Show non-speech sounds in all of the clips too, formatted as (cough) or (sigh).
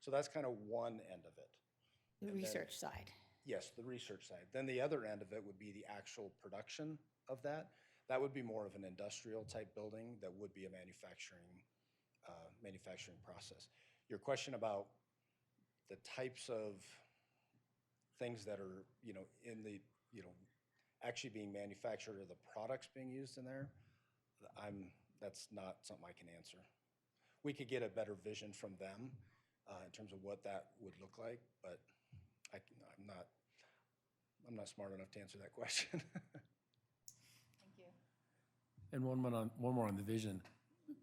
So that's kind of one end of it. And the then- research side. Yes, the research side. Then the other end of it would be the actual production of that. That would be more of an industrial type building that would be a manufacturing, uh, manufacturing process. Your question about the types of things that are, you know, in the, you know, actually being manufactured or the products being used in there, I'm, that's not something I can answer. We could get a better vision from them uh, in terms of what that would look like, but I, can- I'm not, I'm not smart enough to answer that question. (laughs) And one more on, one more on the vision.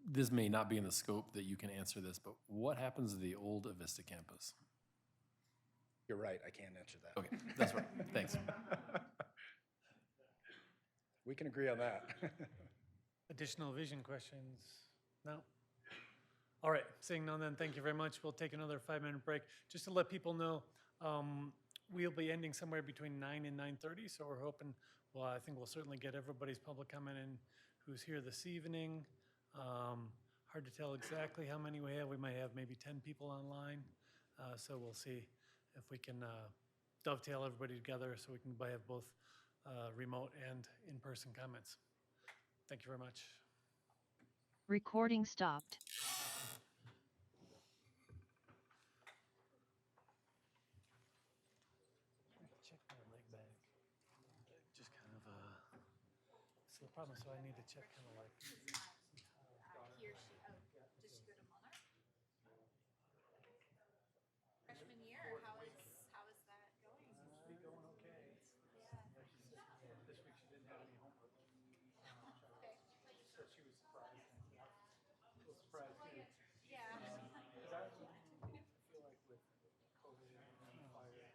This may not be in the scope that you can answer this, but what happens to the old Avista campus? You're right, I can't answer that. Okay, that's right. Thanks. We can agree on that. (laughs) Additional vision questions? No? All right, seeing none then, thank you very much. We'll take another five-minute break. Just to let people know, um, we'll be ending somewhere between nine and nine-thirty, so we're hoping, well, I think we'll certainly get everybody's public comment in who's here this evening. Um, Hard to tell exactly how many we have. We might have maybe ten people online. Uh, So we'll see if we can uh, dovetail everybody together so we can have both uh, remote and in-person comments. Thank you very much. Recording stopped. Check my leg back. Just kind of, uh, it's the problem, so I need to check kind of like. Hmm. he or she, oh, does she go to Monarch? Freshman year, how is, how is that going? Going okay. This week she didn't have any homework, Okay, so she was surprised. A little surprised too, yeah. because I feel like with COVID and fire,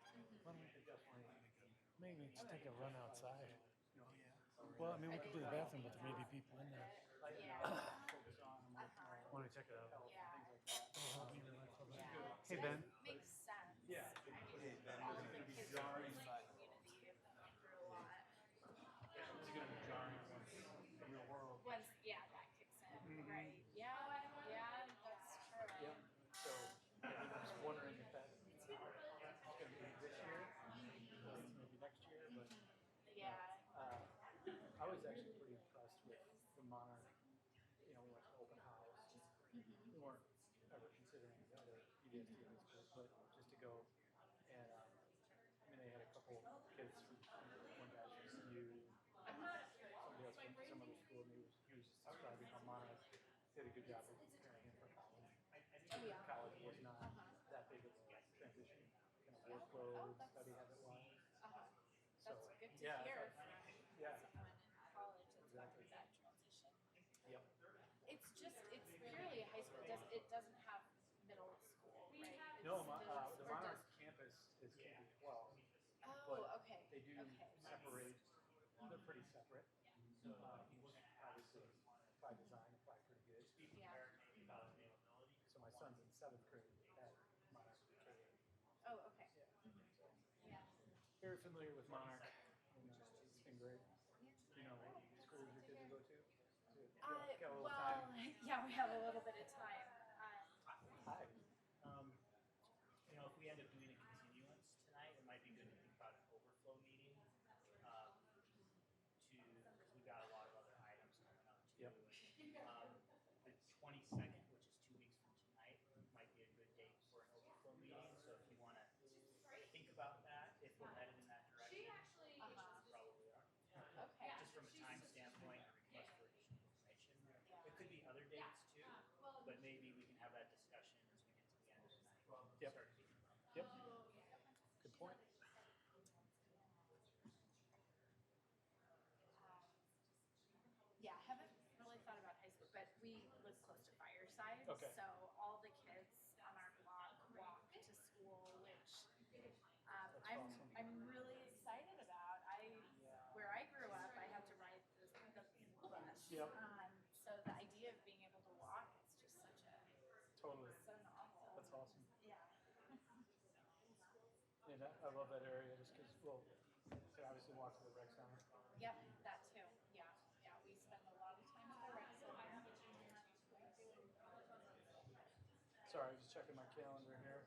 definitely. Maybe we just take a run outside. Well, I mean, we could do the bathroom, but there may be people in there. Uh-huh. Want to check it out? Hey, Ben. Makes sense. Yeah. All of the kids in the community have gone through a lot. Once, yeah, that kicks in, right? Yeah, yeah, that's true. So, yeah, I'm just wondering if that, it's gonna be this year, maybe next year, but, Yeah. uh, I was actually pretty impressed with the Monarch. You know, we went to open house, we weren't ever considering the other EDS students, but, but just to go and, um, I mean, they had a couple kids from, from one guy from CU, somebody else from some other school, and he was, he was describing how Monarch did a good job of preparing him for college college was not that big of a transition. Kind of workload, study habit wise. That's good to yeah, hear from Yeah, someone in college that's gone through that transition. yep. It's just, it's purely a high school, it doesn't, it doesn't have middle school, right? No, It's my, uh, the middle school, or does- Monarch campus is K through twelve. Oh, okay, They do okay. separate, they're pretty separate. Uh, which obviously by design, apply pretty good. Yeah, Um, So my son's in seventh grade at Monarch K. oh, okay. Very familiar with Monarch. You know, It's been great. You know, what schools your kids will go to? Uh, Got- got a little time. well, yeah, we have a little bit of time. Um, Hi. Um, you know, if we end up doing a continuance tonight, it might be good to think about an overflow meeting, um, to, because we've got a lot of other items coming up too. Yep. Um, the twenty-second, which is two weeks from tonight, might be a good date for an overflow meeting, so if you wanna think about that, if we're headed in that direction, which we probably are. okay, Just from a time standpoint, a request for additional information, it could be other dates too, but maybe we can have that discussion as we get to the end of the night. Yep. Start thinking about that. Yep. Good point. yeah, I haven't really thought about high school, but we live close to Fireside, Okay. so all the kids on our block walk to school, which um, I'm awesome. I'm really excited about. I where I grew up, I had to ride the, the school bus. Yep. Um, so the idea of being able to walk is just such a Totally. so novel. That's awesome. Yeah. And I, I love that area just because, well, so obviously walk to the rec center. Yep, that too. Yeah, yeah. We spend a lot of time at the rec center. Sorry, I was just checking my calendar here.